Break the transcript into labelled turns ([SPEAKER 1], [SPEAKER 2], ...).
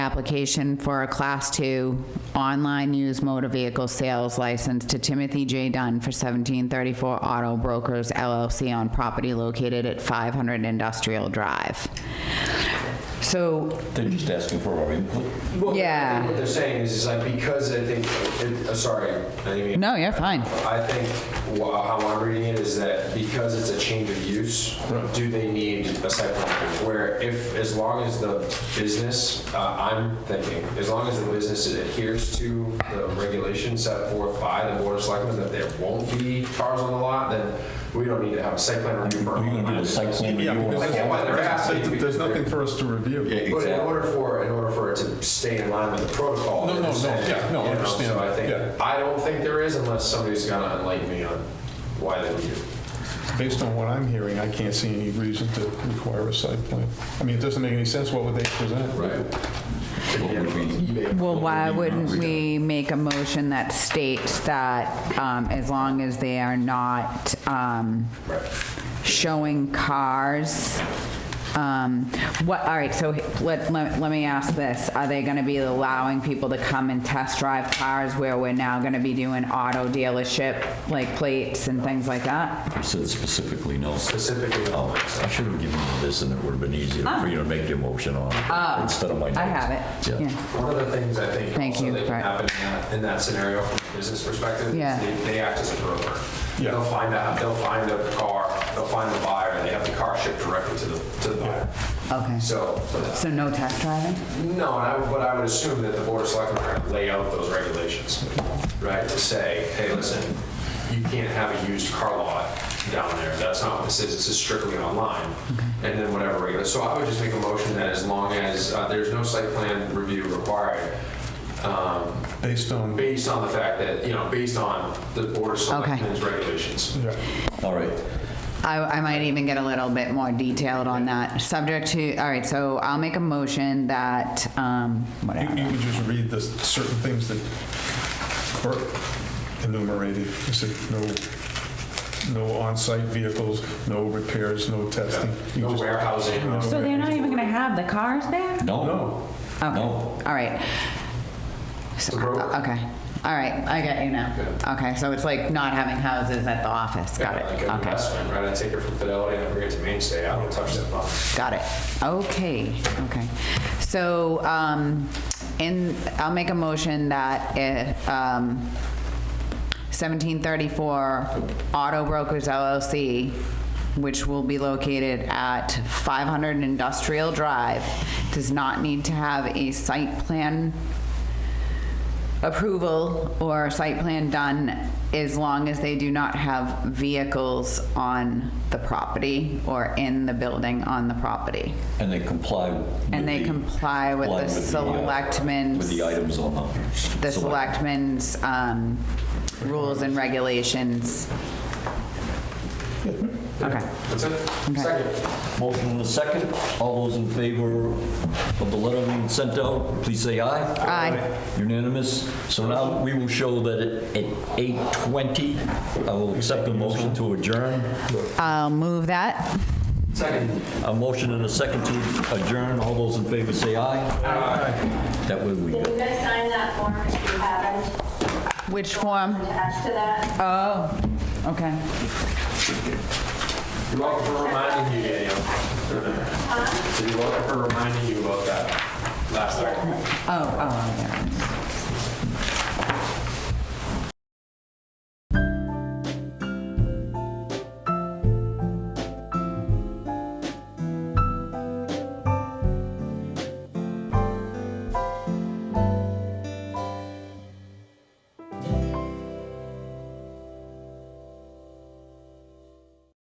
[SPEAKER 1] application for a Class Two online used motor vehicle sales license to Timothy J. Dunn for 1734 Auto Brokers LLC on property located at 500 Industrial Drive. So,
[SPEAKER 2] They're just asking for our input.
[SPEAKER 3] Well, I
[SPEAKER 1] Yeah.
[SPEAKER 3] think What they're saying is, is like, because I think, it- uh, sorry, I didn't mean-
[SPEAKER 1] no, you're fine.
[SPEAKER 3] I think wha- how I'm reading it is that because it's a change of use, do they need a site plan? approval? Where if, as long as the business, uh, I'm thinking, as long as the business adheres to the regulations set forth by the board of selectmen that there won't be cars on the lot, then we don't need to have a site plan review. for
[SPEAKER 2] Are you going to do a site plan
[SPEAKER 4] Yeah,
[SPEAKER 2] review?
[SPEAKER 4] because
[SPEAKER 3] I get why they're asking.
[SPEAKER 4] There's nothing for us to review.
[SPEAKER 3] But in order for, in order for it to stay in line with the protocol.
[SPEAKER 4] No, no,
[SPEAKER 3] they're
[SPEAKER 4] no,
[SPEAKER 3] saying,
[SPEAKER 4] yeah, no, I
[SPEAKER 3] you know,
[SPEAKER 4] understand
[SPEAKER 3] So I
[SPEAKER 4] that,
[SPEAKER 3] think,
[SPEAKER 4] yeah.
[SPEAKER 3] I don't think there is unless somebody's gonna enlighten me on why they would do.
[SPEAKER 4] Based on what I'm hearing, I can't see any reason to require a site plan. I mean, it doesn't make any sense, what would they present?
[SPEAKER 1] Well, why wouldn't we make a motion that states that um, as long as they are not um, showing cars? um, What, all right, so let, let let me ask this. Are they going to be allowing people to come and test drive cars where we're now going to be doing auto dealership, like plates and things like that?
[SPEAKER 2] Said specifically, no.
[SPEAKER 3] Specifically, um, no.
[SPEAKER 2] Oh, I should have given you this, and it would have been easier for you to make your motion on instead of my notes.
[SPEAKER 1] Ah. I have it,
[SPEAKER 2] Yeah.
[SPEAKER 1] yeah.
[SPEAKER 3] One of the things I think
[SPEAKER 1] Thank
[SPEAKER 3] also
[SPEAKER 1] you,
[SPEAKER 3] that can
[SPEAKER 1] right.
[SPEAKER 3] happen in that- in that scenario from a business perspective is
[SPEAKER 1] Yeah.
[SPEAKER 3] they- they act as a broker.
[SPEAKER 4] Yeah.
[SPEAKER 3] They'll find out, they'll find the car, they'll find the buyer, and they have the car shipped directly to the, to the buyer.
[SPEAKER 1] Okay.
[SPEAKER 3] So,
[SPEAKER 1] So no test driving?
[SPEAKER 3] No, and I, would- but I would assume that the board of selectmen are gonna lay out those regulations, right? To say, hey, listen, you can't have a used car lot down there. That's not what this is. This is strictly online.
[SPEAKER 1] Mm-hmm.
[SPEAKER 3] And then whatever regular, so I would just make a motion that as long as uh, there's no site plan review required, um,
[SPEAKER 4] Based on, yeah,
[SPEAKER 3] based on the fact that, you know, based on the board of selectmen's regulations.
[SPEAKER 2] All right.
[SPEAKER 1] I, I might even get a little bit more detailed on that. Subject to, all right, so I'll make a motion that, um,
[SPEAKER 4] you
[SPEAKER 1] whatever.
[SPEAKER 4] you could just read the certain things that were enumerated. You said no, no on-site vehicles, no repairs, no testing. You
[SPEAKER 3] No
[SPEAKER 4] just-
[SPEAKER 3] warehousing.
[SPEAKER 4] No.
[SPEAKER 5] So they're not even gonna have the cars there?
[SPEAKER 2] No.
[SPEAKER 4] No.
[SPEAKER 1] Okay,
[SPEAKER 2] No.
[SPEAKER 1] All right. So, uh,
[SPEAKER 3] Bro-
[SPEAKER 1] okay, all right, I got you now. Okay, so it's like not having houses at the office, got
[SPEAKER 3] Like
[SPEAKER 1] it,
[SPEAKER 3] an
[SPEAKER 1] okay,
[SPEAKER 3] investment, right? I take it from Fidelity and I bring it to Mainstay. I don't touch that box.
[SPEAKER 1] got it, okay, okay. So, um, in, I'll make a motion that, it, um, 1734 Auto Brokers LLC, which will be located at 500 Industrial Drive, does not need to have a site plan approval or site plan done as long as they do not have vehicles on the property or in the building on the property.
[SPEAKER 2] And they comply. with
[SPEAKER 1] And they
[SPEAKER 2] the-
[SPEAKER 1] comply with
[SPEAKER 2] comply
[SPEAKER 1] the
[SPEAKER 2] uh,
[SPEAKER 1] selectmen's-
[SPEAKER 2] With the items on the.
[SPEAKER 1] The
[SPEAKER 2] select-
[SPEAKER 1] selectmen's um, rules and regulations. Okay.
[SPEAKER 3] That's it. Second.
[SPEAKER 2] Motion in a second. All those in favor of the letter being sent out, please say aye.
[SPEAKER 1] Aye.
[SPEAKER 2] Unanimous. So now we will show that at- at 8:20, I will accept the motion to adjourn.
[SPEAKER 1] I'll move that.
[SPEAKER 3] Second.
[SPEAKER 2] A motion and a second to adjourn. All those in favor say aye. Aye. That way we
[SPEAKER 6] Did
[SPEAKER 2] go.
[SPEAKER 6] you guys sign that form if you haven't
[SPEAKER 1] Which form?
[SPEAKER 6] attached to that?
[SPEAKER 1] Oh, okay.
[SPEAKER 3] You're welcome for reminding you, Daniel. So you're welcome for reminding you about that last time.
[SPEAKER 1] Oh, oh, there it is.